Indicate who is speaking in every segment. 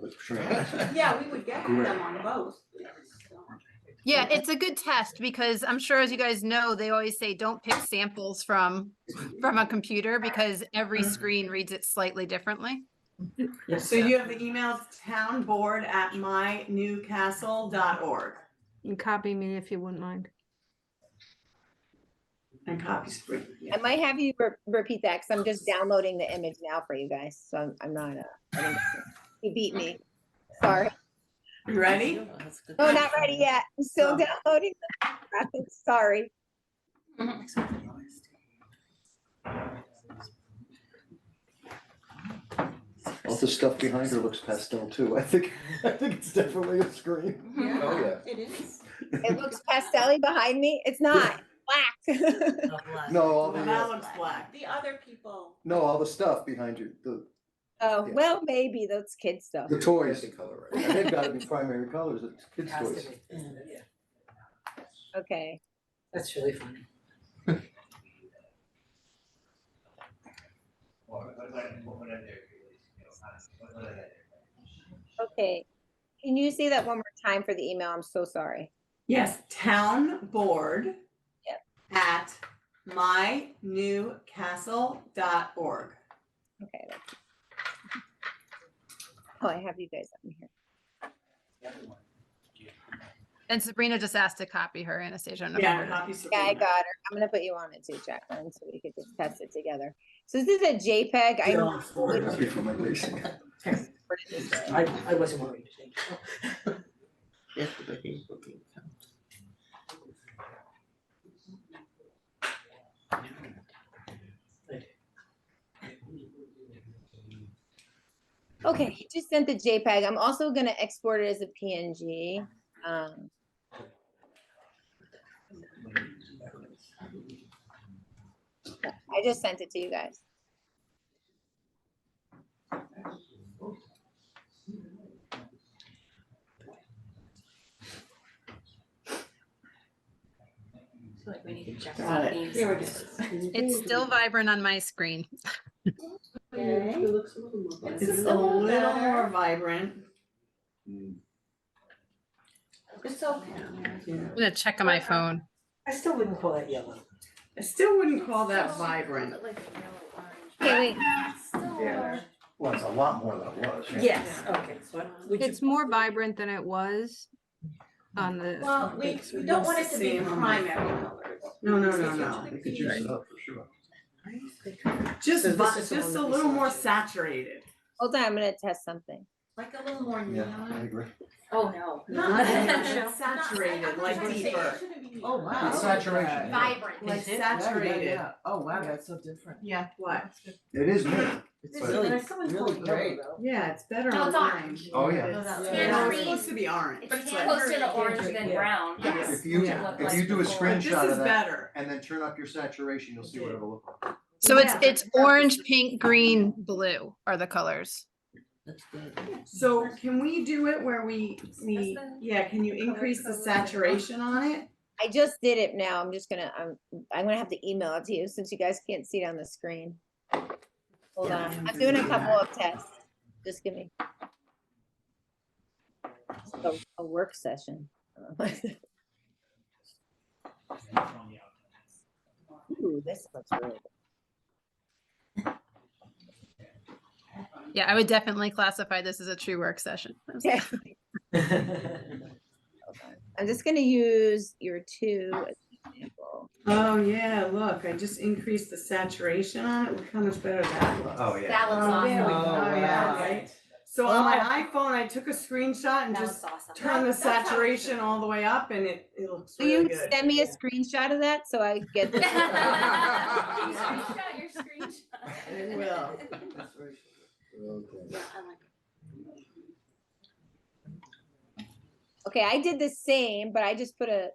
Speaker 1: the trains.
Speaker 2: Yeah, we would get
Speaker 1: Great.
Speaker 2: them on both. So,
Speaker 3: Yeah, it's a good test because I'm sure as you guys know, they always say, don't pick samples from, from a computer because every screen reads it slightly differently.
Speaker 4: Yes.
Speaker 2: So you have the email townboard at mynewcastle.org
Speaker 5: And copy me if you wouldn't mind.
Speaker 2: and copies for you.
Speaker 6: I might have you re- repeat that because I'm just downloading the image now for you guys. So I'm, I'm not, uh, I didn't- you beat me. Sorry.
Speaker 2: You ready?
Speaker 4: Oh,
Speaker 6: No, not ready yet. I'm still
Speaker 2: No.
Speaker 6: downloading. the graphics. Sorry.
Speaker 1: All the stuff behind her looks pastel too. I think, I think it's definitely a screen. Oh, yeah.
Speaker 2: It is.
Speaker 6: It looks pastelly behind me. It's not. Black.
Speaker 1: No, all
Speaker 2: Well,
Speaker 1: the,
Speaker 2: that
Speaker 1: uh,
Speaker 2: looks black. The other people.
Speaker 1: no, all the stuff behind you, the,
Speaker 6: Oh,
Speaker 1: Yeah.
Speaker 6: well, maybe those kids stuff.
Speaker 1: the toys. They've gotta be primary colors, it's kids'
Speaker 4: Has to
Speaker 1: toys.
Speaker 4: be, isn't it?
Speaker 6: Okay.
Speaker 4: That's really funny.
Speaker 6: Okay. Can you say that one more time for the email? I'm so sorry.
Speaker 2: Yes, townboard
Speaker 6: Yep.
Speaker 2: at mynewcastle.org.
Speaker 6: Okay. that's- Oh, I have you guys on here.
Speaker 3: And Sabrina just asked to copy her, Anastasia. I don't know if you
Speaker 2: Yeah,
Speaker 3: heard her.
Speaker 2: copies. for
Speaker 6: Yeah, I
Speaker 2: you.
Speaker 6: got her. I'm gonna put you on it too, Jacqueline, so we could just test it together. So this is a JPEG. I
Speaker 4: Yeah.
Speaker 1: Happy for my racing.
Speaker 6: imported this in.
Speaker 4: I, I wasn't worried.
Speaker 6: Okay, he just sent the JPEG. I'm also gonna export it as a PNG. Um, I just sent it to you guys.
Speaker 2: Got it. Here it is.
Speaker 3: It's still vibrant on my screen.
Speaker 2: It's a little more vibrant.
Speaker 7: It's okay.
Speaker 2: Yeah.
Speaker 3: I'm gonna check on my phone.
Speaker 4: I still wouldn't call that yellow.
Speaker 2: I still wouldn't call that vibrant.
Speaker 6: Okay, wait,
Speaker 7: Yeah.
Speaker 1: Well, it's a lot more than it was.
Speaker 4: Yes, okay, so what would you?
Speaker 5: It's more vibrant than it was on the.
Speaker 2: Well,
Speaker 4: we- we
Speaker 2: don't want it to be primary
Speaker 7: colors.
Speaker 2: No, no, no, no.
Speaker 1: They could use it up for sure.
Speaker 2: Just,
Speaker 4: So this
Speaker 2: vi-
Speaker 4: is
Speaker 2: just
Speaker 4: the one
Speaker 2: a
Speaker 4: that we
Speaker 2: little more
Speaker 4: selected.
Speaker 2: saturated.
Speaker 6: hold on, I'm gonna test something.
Speaker 7: Like a little more
Speaker 1: Yeah, I
Speaker 7: neon.
Speaker 1: agree.
Speaker 7: Oh, no.
Speaker 2: Not neon,
Speaker 7: Not- not-
Speaker 2: saturated, like
Speaker 7: I'm trying to say it
Speaker 2: deeper.
Speaker 7: shouldn't be neon.
Speaker 8: Oh, wow.
Speaker 1: It's saturation. yeah.
Speaker 7: Vibrant.
Speaker 2: Like
Speaker 4: Is it?
Speaker 2: saturated.
Speaker 8: Oh, wow, that's so different.
Speaker 7: Yeah.
Speaker 2: What?
Speaker 1: It is me.
Speaker 8: It's
Speaker 1: But-
Speaker 8: really,
Speaker 7: There's someone
Speaker 8: really
Speaker 7: called
Speaker 8: great.
Speaker 4: Yellow,
Speaker 2: Yeah, it's better
Speaker 7: No,
Speaker 2: on
Speaker 7: it's orange.
Speaker 2: orange.
Speaker 1: Oh, yeah.
Speaker 7: No, that's-
Speaker 2: No,
Speaker 4: Yeah.
Speaker 2: it's
Speaker 7: Tangerine.
Speaker 2: supposed to be orange.
Speaker 7: It's
Speaker 2: like-
Speaker 7: closer to orange
Speaker 4: tangerine,
Speaker 7: than
Speaker 4: yeah.
Speaker 7: brown,
Speaker 2: Yes.
Speaker 7: yes.
Speaker 1: If you,
Speaker 4: Yeah.
Speaker 1: if you do a
Speaker 7: Before.
Speaker 2: This
Speaker 1: screenshot
Speaker 2: is
Speaker 1: of that
Speaker 2: better.
Speaker 1: and then turn up your saturation, you'll see what it'll look like.
Speaker 3: So it's,
Speaker 2: Yeah.
Speaker 3: it's orange, pink, green, blue are the colors.
Speaker 8: That's good.
Speaker 2: So can we do it where we, we,
Speaker 7: That's the-
Speaker 2: yeah, can you increase the saturation on it?
Speaker 6: I just did it now. I'm just gonna, I'm, I'm gonna have to email it to you since you guys can't see it on the screen. Hold
Speaker 2: Yeah,
Speaker 6: on,
Speaker 2: I'm
Speaker 6: I'm doing a
Speaker 2: doing
Speaker 6: couple
Speaker 2: that.
Speaker 6: of tests. Just give me. A, a work session. Oh, Ooh, this looks really good.
Speaker 3: Yeah, I would definitely classify this as a true work session.
Speaker 6: Okay, I'm just gonna use your two as an example.
Speaker 2: Oh, yeah, look, I just increased the saturation on it. Look how much better that looks.
Speaker 1: Oh, yeah.
Speaker 7: That looks
Speaker 2: Oh, there we
Speaker 7: awesome. Oh.
Speaker 2: go.
Speaker 8: Oh,
Speaker 2: Yeah,
Speaker 8: wow.
Speaker 2: right? So on my iPhone, I took a screenshot and
Speaker 7: That
Speaker 2: just
Speaker 7: looks awesome.
Speaker 2: turn the
Speaker 7: That- that's how it should
Speaker 2: saturation all the way up and it, it looks
Speaker 6: Will you
Speaker 2: really good.
Speaker 6: send me a screenshot of that so I get
Speaker 7: be.
Speaker 6: this?
Speaker 7: You screenshot your screenshot.
Speaker 2: I will.
Speaker 7: Yeah, I like it.
Speaker 6: Okay, I did the same, but I just put a.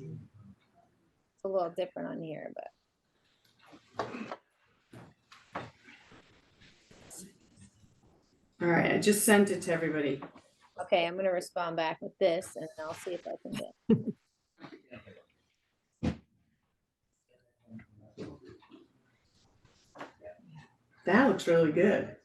Speaker 6: It's a little different on here, but.
Speaker 2: All right, I just sent it to everybody.
Speaker 6: Okay, I'm gonna respond back with this and I'll see if I can get.
Speaker 2: That looks really good.